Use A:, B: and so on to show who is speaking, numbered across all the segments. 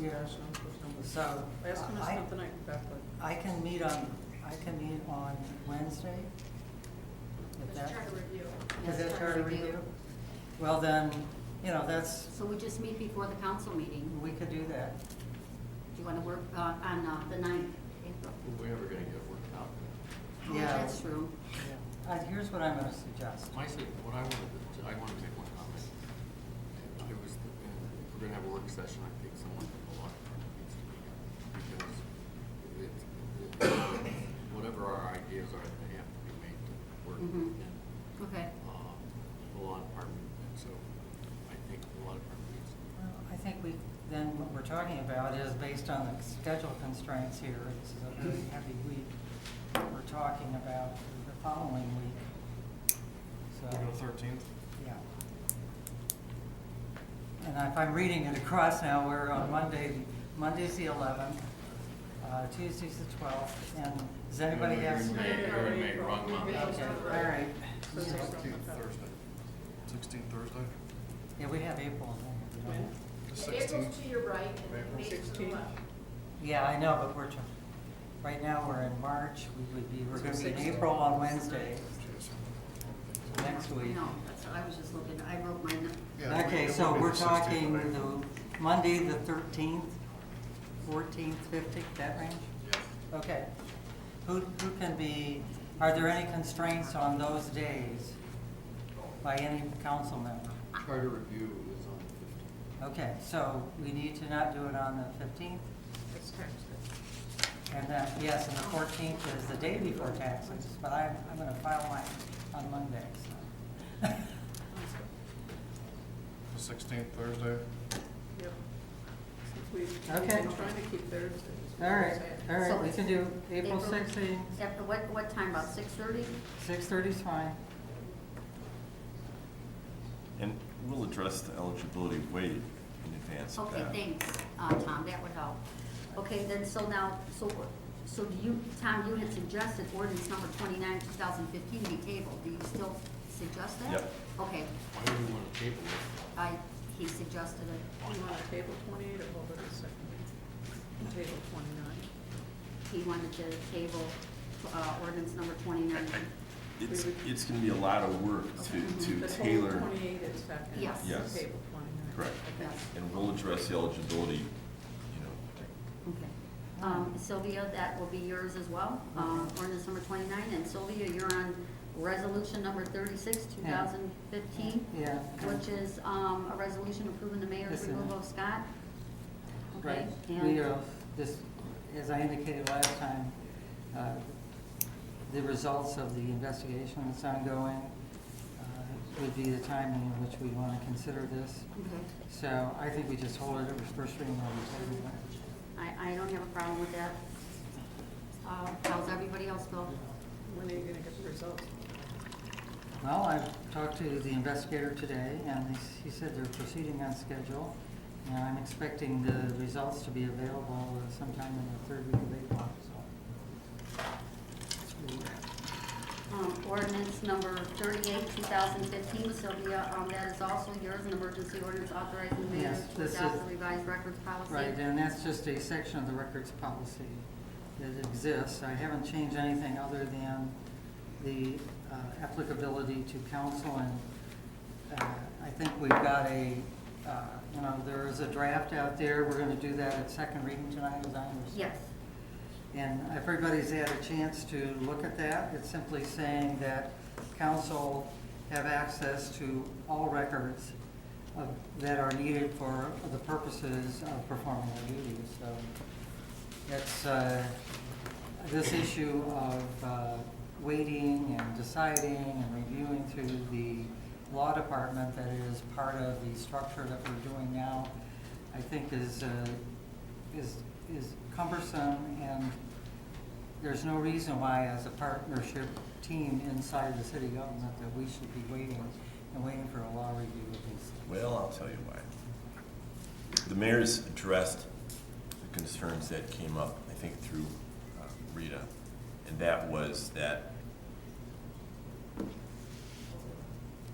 A: Yeah, it's not September.
B: So
A: Ask him if
B: I-
A: something like that, but
B: I can meet on, I can meet on Wednesday. If
C: Let's
B: that,
C: try to review it.
B: is that charter review? Well, then, you know, that's,
D: So we just meet before the council meeting.
B: we could do that.
D: Do you want to work uh, on uh, the 9th, April?
E: We're never gonna get it worked out.
D: Oh,
B: Yeah.
D: That's true.
B: Uh, here's what I'm gonna suggest.
E: My, sug- what I wanted, to- I wanna make one comment. I was, thinking, if we're gonna have a work session, I think someone from the law department needs to be here. Because it's, it- whatever our ideas are, they have to be made to work
D: Mhm.
E: in,
D: Okay.
E: uh, the law department. And so I think the law department needs,
B: Well, I think we, then what we're talking about is based on the schedule constraints here, this is a very heavy week. We're talking about the following week, so.
F: thirteenth?
B: Yeah. And if I'm reading it across now, we're on Monday, Monday's the eleventh, uh, Tuesday's the twelfth, and does anybody
E: you're
B: have?
E: in May, you're in May, wrong month.
B: Okay, all right.
A: Thursday.
F: Sixteenth Thursday. Sixteenth Thursday?
B: Yeah, we have April. in there, you know.
F: The
C: April's to your right and
F: April.
C: May's to the
A: 16.
C: left.
B: Yeah, I know, but we're, tr- right now, we're in March, we would be, we're gonna be in April on Wednesday, next week.
D: No, that's, I was just looking, I wrote my, n-
F: Yeah,
B: Okay,
F: it would
B: so
F: be the
B: we're
F: 16th of
B: talking
F: April.
B: the Monday, the thirteenth, fourteenth, fifteenth, that range?
F: Yeah.
B: Okay. Who, who can be, are there any constraints on those days by any council member?
E: charter review is on the fifteenth.
B: Okay, so we need to not do it on the fifteenth,
A: it's tax day.
B: and then, yes, and the fourteenth is the day before taxes, but I'm, I'm gonna file mine on Monday, so.
F: The sixteenth Thursday?
A: Yep. Since we- We've
B: Okay.
A: been trying to keep Thursdays.
B: All right, all
D: So
B: right, we
D: it's
B: can do April
D: April-
B: sixteenth,
D: is that- what, what time, about 6:30?
B: six thirty's fine.
G: And we'll address the eligibility way in advance of
D: Okay,
G: that.
D: thanks, uh, Tom, that would help. Okay, then, so now, so, so do you, Tom, you had suggested ordinance number 29, 2015 be tabled. Do you still suggest that?
G: Yep.
D: Okay,
E: Why do we wanna table it?
D: I, he suggested it.
A: You want to table twenty-eight or hold it a second? Table twenty-nine.
D: He wanted to table uh, ordinance number 29.
G: It's, it's gonna be a lot of work to, to
A: But
G: tailor,
A: Hold Mm-hmm. twenty-eight is second.
D: Yes.
G: Yes.
A: Table twenty-nine.
G: Correct.
A: Okay.
D: Yes.
G: and we'll address the eligibility, you know,
D: Okay. Um, Sylvia, that will be yours as well, um, ordinance number twenty-nine, and Sylvia, you're on resolution number thirty-six, two
B: Yeah.
D: thousand fifteen,
B: Yeah.
D: which is, um, a resolution approving the mayor's
B: Yes, ma'am.
D: removal of Scott. Okay,
B: Right, we,
D: and,
B: uh, this, as I indicated last time, uh, the results of the investigation that's ongoing uh, would be the timing in which we want to consider this.
D: okay,
B: So I think we just hold it at first reading on
D: I, I don't have a problem with that. Uh, how's everybody else feel?
A: When are you going to get the results?
B: Well, I talked to the investigator today, and he s- he said they're proceeding on schedule, and I'm expecting the results to be available uh, sometime in the third week of April, so.
D: Um, ordinance number thirty-eight, two thousand fifteen, Sylvia, um, that is also yours, an emergency ordinance authorizing the mayor
B: Yes,
D: to
B: this
D: adopt
B: is-
D: the revised records policy.
B: Right, and that's just a section of the records policy that exists. I haven't changed anything other than the uh, applicability to council, and uh, I think we've got a, uh, you know, there is a draft out there. We're gonna do that at second reading tonight, as I understand.
D: Yes.
B: And if everybody's had a chance to look at that, it's simply saying that council have access to all records of, that are needed for the purposes of performing their duties, so. It's, uh, this issue of, uh, waiting and deciding and reviewing through the law department that is part of the structure that we're doing now, I think is, uh, is, is cumbersome, and there's no reason why, as a partnership team inside the city government, that we should be waiting and waiting for a law review of these things.
G: well, I'll tell you why. The mayor's addressed the concerns that came up, I think, through uh, Rita, and that was that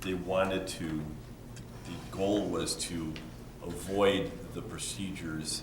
G: they wanted to, the goal was to avoid the procedures